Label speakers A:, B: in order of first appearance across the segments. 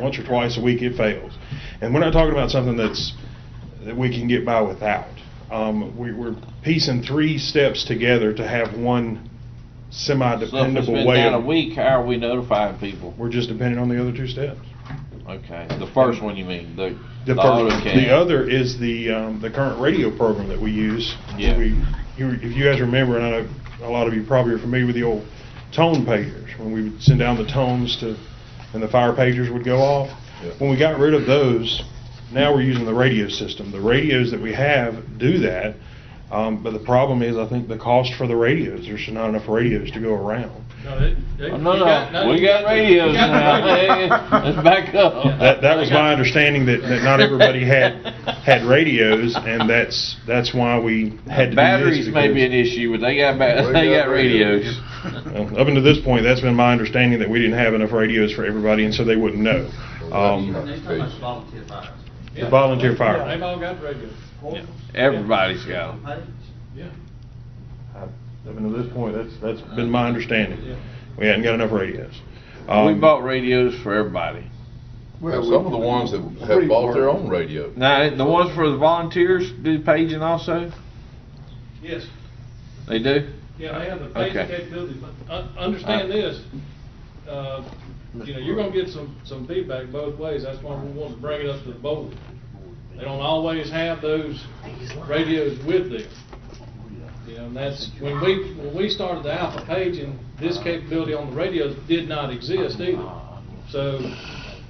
A: once or twice a week, it fails. And we're not talking about something that's, that we can get by without. Um, we, we're piecing three steps together to have one
B: So if it's
A: semi-dependable
B: been
A: way.
B: down a
A: of-
B: week, how are we notifying people?
A: We're just dependent on the other two steps.
B: Okay, the first one you mean, the,
A: The
B: the
A: first,
B: AutoCAD.
A: the other is the, um, the current radio program that we use.
B: Yeah.
A: We, you, if you guys remember, and I know a lot of you probably are familiar with the old tone pagers, when we would send down the tones to, and the fire pagers would go off.
C: Yeah.
A: When we got rid of those, now we're using the radio system. The radios that we have do that, um, but the problem is, I think the cost for the radios, there's not enough radios to go around.
D: No, they, they.
B: Oh,
D: you
B: No,
D: got-
B: no, we
D: you
B: got
D: the-
B: radios
D: you got the radio.
B: now, let's back up.
A: That, that was my understanding that, that not everybody had, had radios, and that's, that's why we had to do this.
B: Batteries may be an
A: because-
B: issue, but they got, ba-
C: We
B: they
C: got
B: got radios.
A: Well, Up until this point, that's been my understanding that we didn't have enough radios for everybody, and so they wouldn't know. Um,
E: There's not much volunteer fires.
A: The volunteer fire.
D: Yeah, They've all got radios.
B: Everybody's got 'em.
D: Yeah.
A: Up until this point, that's, that's been my understanding. We hadn't got enough radios.
B: We
A: Um,
B: bought radios for everybody.
C: Well, some of the ones that have bought their own radio.
B: Now, the ones for the volunteers do paging also?
D: Yes.
B: They do?
D: Yeah, they have the basic
B: Okay.
D: capability, but un- understand this, uh, you know, you're gonna get some, some feedback both ways, that's why we want to bring it up to the board. They don't always have those radios with them. You know, and that's, when we, when we started the Alpha paging, this capability on the radios did not exist either. So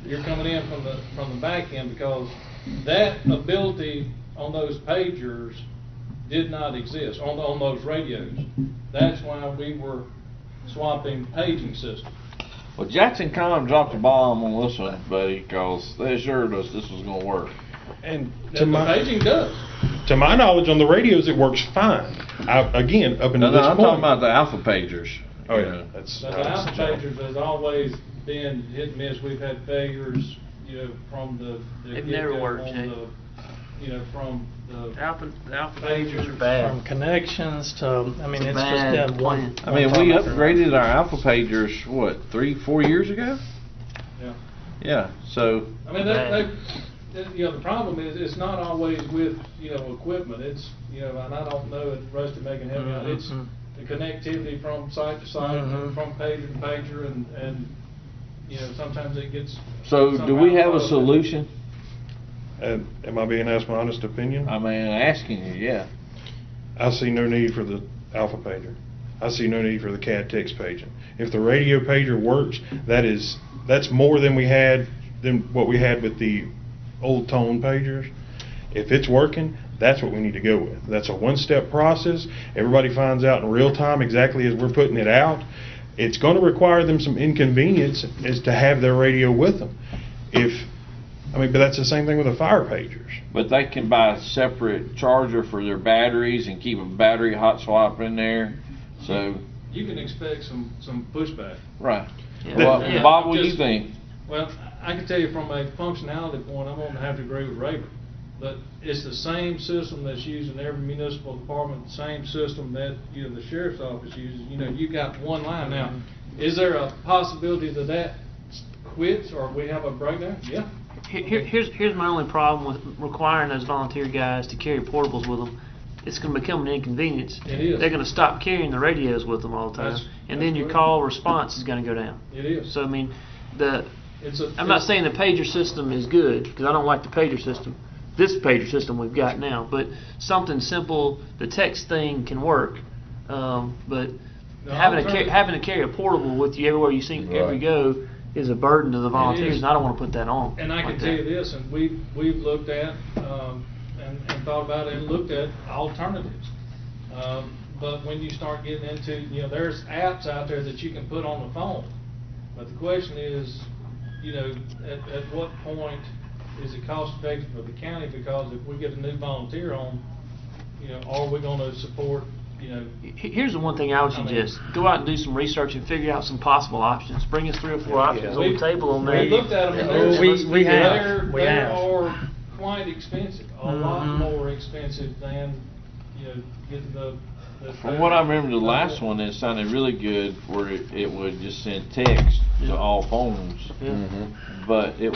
D: you're coming in from the, from the back end because that ability on those pagers did not exist, on, on those radios. That's why we were swapping paging system.
B: Well, Jackson County dropped the bomb on this one, buddy, because they assured us this was gonna work.
A: And to
D: That the
A: my,
D: paging does.
A: to my knowledge, on the radios, it works fine. I, again, up
B: No,
A: until
B: no,
A: this
B: I'm
A: point.
B: talking about the alpha pagers.
A: Oh,
B: you
A: yeah,
B: know.
A: that's.
D: But the Alpha pagers has always been hit and miss. We've had failures, you know, from the. the
F: They've never
D: get-go,
F: worked,
D: from
F: Jay.
D: the- You know, from the.
F: Alpha, the alpha
D: Pagers
F: pagers
D: are
F: are
G: From
F: bad.
G: connections to, I mean,
F: It's a
G: it's just
F: bad
G: that one.
F: plan.
B: I mean,
G: one
B: we
G: time after another.
B: upgraded our alpha pagers, what, three, four years ago?
D: Yeah.
B: Yeah, so,
D: I mean, that,
F: Right.
D: that, that, you know, the problem is, it's not always with, you know, equipment, it's, you know, and I don't know if Rusty making heavy out, it's
G: Mhm.
D: the connectivity from site to site, and
G: Mhm.
D: from pager to pager, and, and, you know, sometimes it gets.
B: so do we
D: somehow
B: have a
D: low.
B: solution?
A: And Am I being asked my honest opinion?
B: I mean, asking you, yeah.
A: I see no need for the alpha pager. I see no need for the CAD text paging. If the radio pager works, that is, that's more than we had, than what we had with the old tone pagers. If it's working, that's what we need to go with. That's a one-step process. Everybody finds out in real time exactly as we're putting it out. It's gonna require them some inconvenience is to have their radio with them. If, I mean, but that's the same thing with the fire pagers.
B: But they can buy a separate charger for their batteries and keep a battery hot swap in there, so,
D: You can expect some, some pushback.
B: right.
F: Yeah.
B: Well,
F: Yeah.
B: Bob, what do you
D: Just-
B: think?
D: Well, I can tell you from a functionality point, I'm gonna have to agree with Raven. But it's the same system that's used in every municipal department, the same system that, you know, the sheriff's office uses. You know, you got one line now. Is there a possibility that that quits or we have a breakdown? Yeah.
F: Here- here- here's, here's my only problem with requiring those volunteer guys to carry portables with them. It's gonna become an inconvenience.
D: It is.
F: They're gonna stop carrying the radios with them all the time,
D: That's-
F: and then
D: that's
F: your
D: right.
F: call response is gonna go down.
D: It is.
F: So, I mean, the,
D: It's a.
F: I'm not saying the pager system is good, because I don't like the pager system, this pager system we've got now, but something simple, the text thing can work. Um, but
D: No,
F: having to,
D: I'll turn-
F: ca- having to carry a portable with you everywhere you see, every
C: Right.
F: go is a burden to the volunteers,
D: is.
F: and I don't wanna put that on.
D: And I can
F: like
D: tell you
F: that.
D: this, and we've, we've looked at, um, and, and thought about it and looked at alternatives. Um, but when you start getting into, you know, there's apps out there that you can put on the phone. But the question is, you know, at, at what point is it cost effective for the county? Because if we get a new volunteer on, you know, are we gonna support, you know,
F: He- Here's the one thing I would
D: I mean-
F: suggest, go out and do some research and figure out some possible options, bring us three or four options on
D: We-
F: the table on there.
D: We looked at them, and
F: Yeah.
D: they're.
G: We- we have,
D: they're-
G: we
D: they
G: have.
D: are quite expensive, a lot
F: Mhm.
D: more expensive than, you know, getting the. the-
B: From what I remember, the last one, it sounded really good where it, it would just send text to all phones,
C: Mm-hmm.
F: Yeah.
B: but it